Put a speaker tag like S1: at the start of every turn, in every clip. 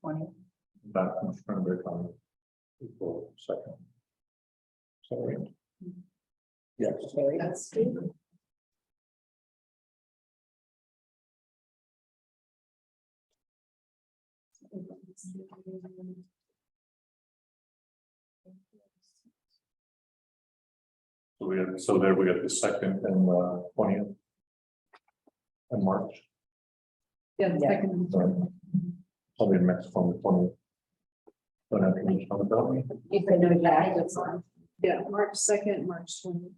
S1: twenty.
S2: back from Cranberry County. April second. Sorry. Yes.
S1: That's Steve.
S2: So we have, so there we got the second and the twentieth. And March,
S1: Yeah, the second.
S2: sorry. Probably the next one, the twentieth. Don't have to reach out about me.
S1: You can do that, that's on. Yeah, March second, March twenty.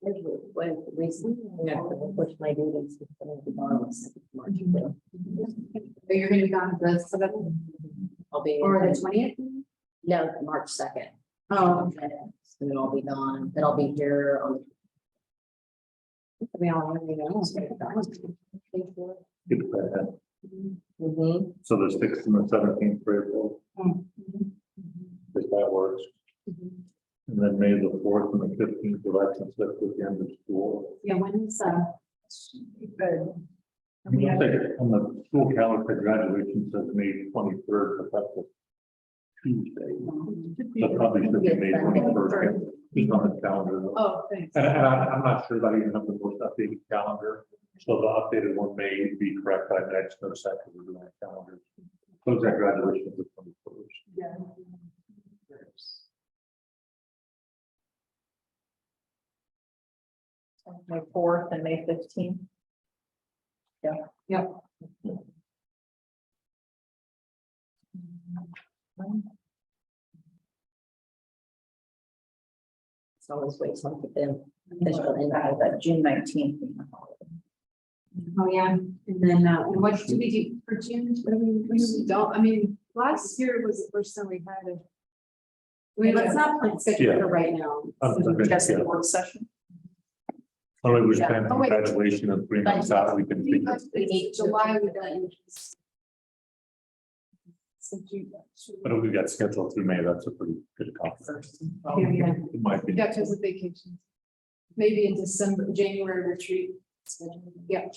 S3: What reason? Which my duties. is gonna be on this March fifth.
S1: Are you gonna be gone the seventh
S3: I'll be.
S1: or the twentieth?
S3: No, March second.
S1: Oh,
S3: And then I'll be gone, then um, I'll be here on.
S1: we all want to
S2: Get that.
S1: Hmm.
S3: Mhm.
S2: So the sixth and the seventeenth for April,
S1: Mm-hmm.
S2: if that works. And then May the fourth and the fifteenth, will that conflict with the end of school?
S1: Yeah, when's, uh. Good.
S2: I'm gonna take- On the school calendar, graduation says May twenty-third, but that's a Tuesday. That probably should be May twenty-first, just on the calendar.
S1: Oh, thanks.
S2: And, and I, I'm not sure that I even have the most updated calendar, so the updated one may be correct by next, no second, we're doing our calendar. Close that graduation is the twenty-first.
S1: Yeah.
S3: May fourth and May fifteenth. Yeah.
S1: Yep.
S3: It's always wait till we get them official invite, but June nineteenth.
S1: Oh, yeah, and then, uh, and what do we do for June? I mean, we just don't, I mean, last year was the first time we had a. We, let's not plan six
S2: Yeah.
S1: for right now,
S2: Um,
S1: so
S2: okay,
S1: just
S2: yeah.
S1: the work session.
S2: All right, we're
S3: Yeah.
S2: planning
S1: Oh, wait.
S2: graduation and three months out, we can. figure-
S3: We need to-
S1: July would. uh, in- So June.
S2: But if we got scheduled through May, that's a pretty good conference.
S1: Yeah, yeah.
S2: It might be.
S1: Yeah, because of vacations. Maybe in December, January retreat. Yeah.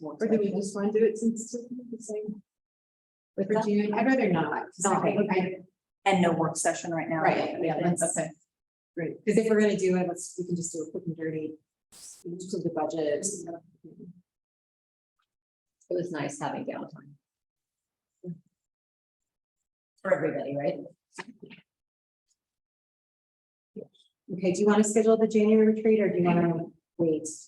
S1: Or do we just want to do it since it's the same? For June, I'd rather not. 'cause I think I-
S4: And no work session right now.
S1: Right, yeah, that's
S4: Okay.
S1: okay. Great, because if we're gonna do it, let's, we can just do a quick and dirty. To the budget.
S3: It was nice having downtime. For everybody, right?
S1: Okay, do you want to schedule the January retreat or do you want to wait?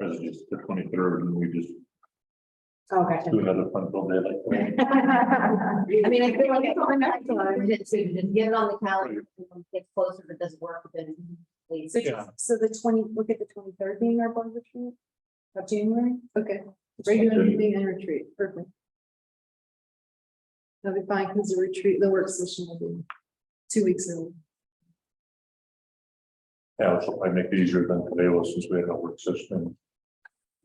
S2: Or is it just the twenty-third and we just
S1: Oh, gotcha.
S2: do another fun full day like. that?
S3: I mean, I feel like it's on the calendar, it's- we just Get it on the calendar, if it gets closer, if it doesn't work, then please.
S1: So,
S2: Yeah.
S1: so the twenty, look at the twenty-third being our board retreat of January? Okay, regular
S2: Okay.
S1: meeting and retreat, perfect. That'll be fine, because the retreat, the work session will be two weeks early.
S2: Yeah, which will probably make it easier than today was since we had a work session. in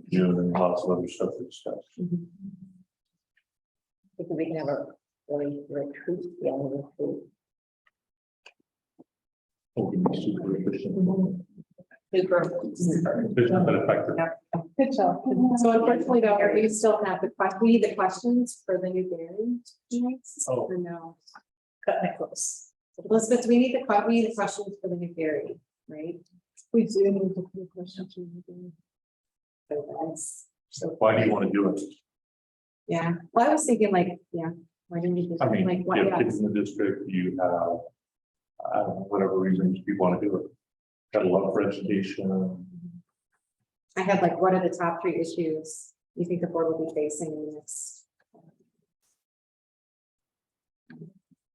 S2: June and lots of other stuff to discuss.
S1: Mm-hmm.
S3: Because we can have a really retreat, yeah, retreat.
S2: Hope Oh, we can super efficient.
S3: Super.
S2: Efficient but effective.
S1: Good job. So unfortunately, though, we still have the question, we need the questions for the new variant. tonight,
S2: Oh.
S1: Or no? Cut my close. Elizabeth, do we need the, que- we need the questions for the new variant, right? We do need the questions. So that's,
S2: Why do you want to do it?
S1: yeah, well, I was thinking like, yeah, why didn't we just
S2: I
S1: like,
S2: mean,
S1: what,
S2: you have
S1: yeah,
S2: kids in the district, you have. I don't know, whatever reasons you want to do it. Got a love for education.
S1: I had like, what are the top three issues you think the board will be facing in the next?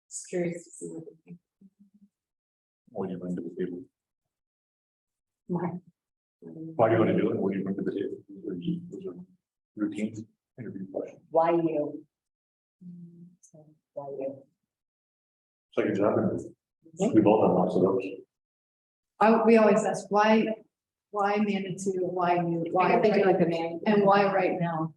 S1: Just curious to see what they think.
S2: What do you bring to the table?
S1: My-
S2: Why do you want to do it? What do you bring to the table? Those are- those are Routine interview question.
S3: Why you? So, Why you?
S2: Second job. We've all done lots of those.
S4: I, we always ask, why, why Manitou, why you,
S1: Why,
S4: why,
S1: I think like the man.
S4: and why right now?